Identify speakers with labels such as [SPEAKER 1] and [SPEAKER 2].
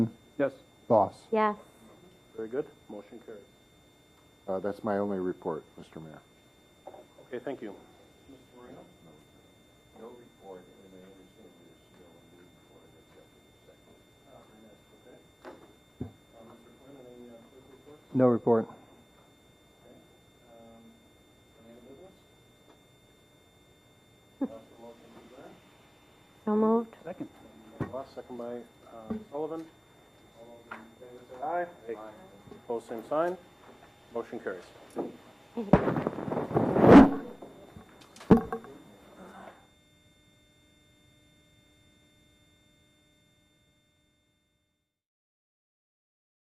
[SPEAKER 1] Yes.
[SPEAKER 2] Boss.
[SPEAKER 3] Yes.
[SPEAKER 1] Very good. Motion carries.
[SPEAKER 2] Uh, that's my only report, Mr. Mayor.
[SPEAKER 1] Okay, thank you.
[SPEAKER 4] No report.
[SPEAKER 3] So moved.
[SPEAKER 1] Second. Ross, second by uh, Sullivan. All those in favor say Aye. Aye. Opposed, same sign. Motion carries.